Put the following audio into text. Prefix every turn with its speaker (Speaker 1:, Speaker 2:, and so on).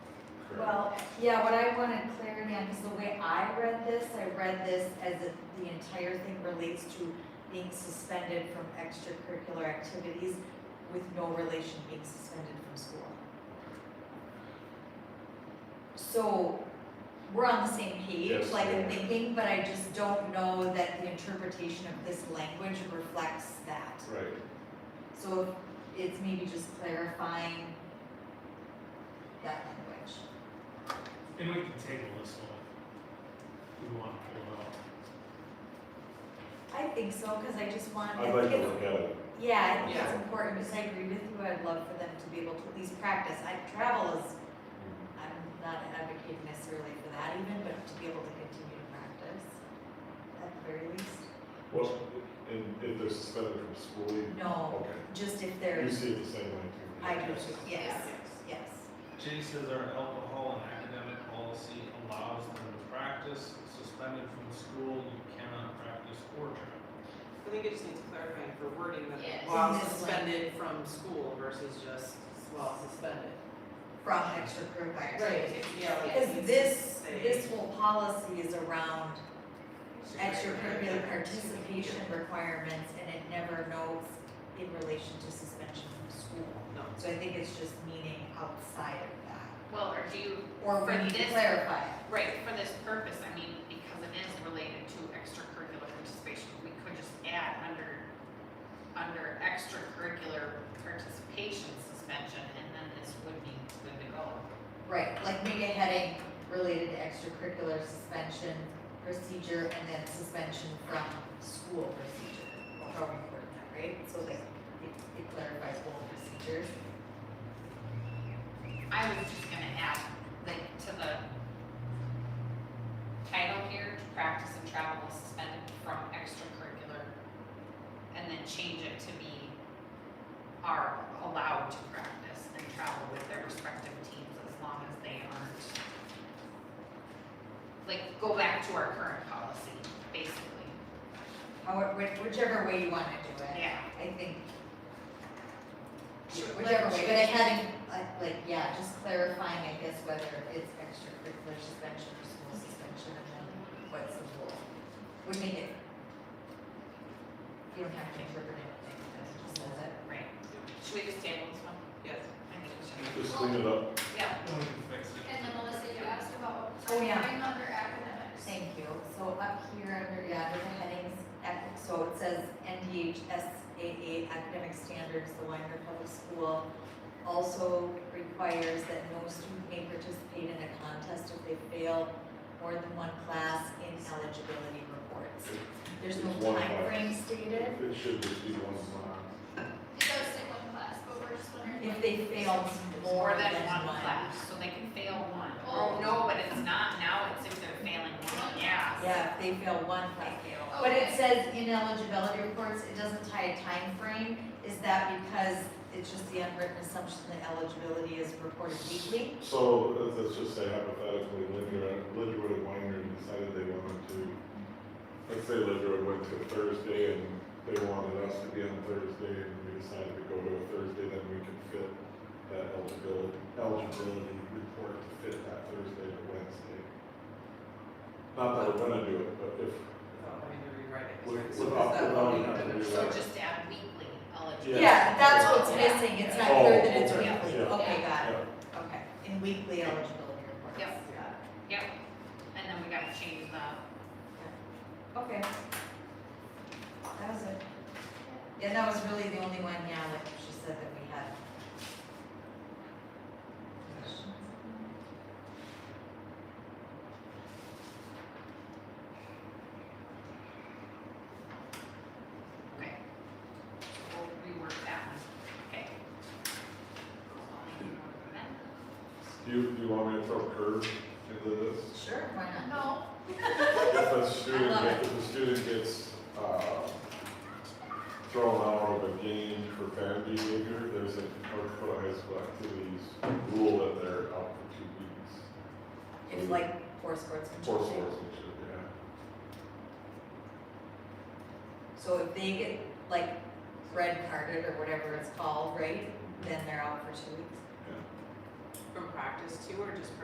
Speaker 1: Well, yeah, what I wanted clarity on, because the way I read this, I read this as it- the entire thing relates to being suspended from extracurricular activities with no relation being suspended from school. So, we're on the same page,
Speaker 2: Yes.
Speaker 1: like in thinking, but I just don't know that the interpretation of this language reflects that.
Speaker 2: Right,
Speaker 1: So it's maybe just clarifying that language.
Speaker 3: And we can table this one. if We want to pull it off.
Speaker 1: I think so, cause I just want, I
Speaker 2: I'd like
Speaker 1: think
Speaker 2: to
Speaker 1: it's,
Speaker 2: look at it,
Speaker 1: yeah, I think it's
Speaker 3: Yeah.
Speaker 1: important, because I agree with you, I'd love for them to be able to at least practice, I, travel is, I'm not an advocate necessarily for that even, but to be able to continue to practice, at the very least,
Speaker 2: well, and if they're suspended from school, you,
Speaker 1: no,
Speaker 2: okay,
Speaker 1: just if
Speaker 2: you
Speaker 1: there's,
Speaker 2: see it the same way too.
Speaker 1: Oh. I do, yes, yes.
Speaker 4: Jay says our alcohol and academic policy allows them to practice, suspended from school, you cannot practice or travel.
Speaker 5: I think it just needs clarifying for wording
Speaker 6: Yes.
Speaker 5: that while
Speaker 1: In this
Speaker 5: suspended from school versus just while suspended.
Speaker 1: From extracurricular.
Speaker 5: Yeah. like it
Speaker 1: Cause
Speaker 5: needs
Speaker 1: this,
Speaker 5: to say-
Speaker 1: this whole policy is around extracurricular participation requirements, and it never notes in relation to suspension from school.
Speaker 5: No.
Speaker 1: So I think it's just meaning outside of that,
Speaker 6: Well, or do you,
Speaker 1: or
Speaker 6: For
Speaker 1: we need to
Speaker 6: this-
Speaker 1: clarify.
Speaker 6: right, for this purpose, I mean, because it is related to extracurricular participation, we could just add under, under extracurricular participation suspension, and then this would be good to go.
Speaker 1: Right, like maybe a heading related to extracurricular suspension procedure, and then suspension from school procedure. Or How we word that, right? So like, it, it clarifies both procedures.
Speaker 6: I was just gonna add that to the title here, to practice and travel is suspended from extracurricular, and then change it to be are allowed to practice and travel with their respective teams as long as they aren't. Like, go back to our current policy, basically,
Speaker 1: However, whichever way you wanna do it,
Speaker 6: yeah.
Speaker 1: I think
Speaker 6: Should-
Speaker 1: Whichever way,
Speaker 6: should-
Speaker 1: but I hadn't, like, like, yeah, just clarifying, I guess, whether it's extracurricular suspension or school suspension, and then what's the rule? Would make it. You don't have to interpret anything, that's just says it.
Speaker 6: Right, should we just table this one?
Speaker 5: Yes.
Speaker 6: I think we
Speaker 2: Just clean it up,
Speaker 6: should, yeah.
Speaker 3: Then we can fix it.
Speaker 7: And then Melissa, you asked about
Speaker 1: Oh, yeah.
Speaker 7: time under academics.
Speaker 1: Thank you, so up here under, yeah, under the headings, ec- so it says NDHSAA academic standards, the Winder Public School also requires that no student may participate in a contest if they fail more than one class in eligibility reports. There's no
Speaker 2: It's one
Speaker 1: time
Speaker 2: class.
Speaker 1: frame stated,
Speaker 2: it should just be one class.
Speaker 7: It does say one class, but we're just wondering.
Speaker 1: if they fail
Speaker 6: More than one class, so they can fail one.
Speaker 7: Oh.
Speaker 6: Oh, no, but it's not, now it's if they're failing one, yeah.
Speaker 1: Yeah, if they fail one class.
Speaker 6: They fail.
Speaker 1: But it says ineligibility reports, it doesn't tie a time frame. is that because it's just the unwritten assumption that eligibility is reported weekly?
Speaker 2: So, let's just say hypothetically, Lidger, Lidger and Winery decided they wanted to, let's say Lidger went to Thursday and they wanted us to be on Thursday and we decided to go to a Thursday, then we could fit that eligibility, eligibility report to fit that Thursday to Wednesday. Not that we're gonna do it, but if,
Speaker 5: Without having to rewrite it.
Speaker 2: With-
Speaker 5: right? So
Speaker 2: without-
Speaker 5: is that
Speaker 2: without
Speaker 5: what we
Speaker 2: having to
Speaker 5: do?
Speaker 2: rewrite
Speaker 6: So just add weekly
Speaker 2: Yeah.
Speaker 6: eligibility.
Speaker 1: Yeah, that's what's
Speaker 6: Yeah.
Speaker 1: missing, it's not
Speaker 2: Oh,
Speaker 1: clear that it's
Speaker 2: okay,
Speaker 1: weekly,
Speaker 2: yeah.
Speaker 1: okay, got it,
Speaker 2: yeah,
Speaker 1: okay, in weekly eligibility reports.
Speaker 6: Yep.
Speaker 1: Got
Speaker 6: Yep, and then we gotta change the,
Speaker 1: it. Okay. That was it. Yeah, that was really the only one, yeah, like she said that we had.
Speaker 6: okay. We'll rework that one, okay. Then,
Speaker 2: do you, do you want me to throw a curve into this?
Speaker 1: Sure, why not?
Speaker 7: No,
Speaker 2: If a student,
Speaker 1: love
Speaker 2: get- if a student gets, uh, thrown out of a game for bad behavior, there's a North Dakota High School Activities rule that they're out for two weeks.
Speaker 1: It's like four sports.
Speaker 2: Four
Speaker 1: control.
Speaker 2: sports and shit, yeah.
Speaker 1: So if they get like red carded or whatever it's called, right, then they're out for two weeks.
Speaker 5: From practice too, or just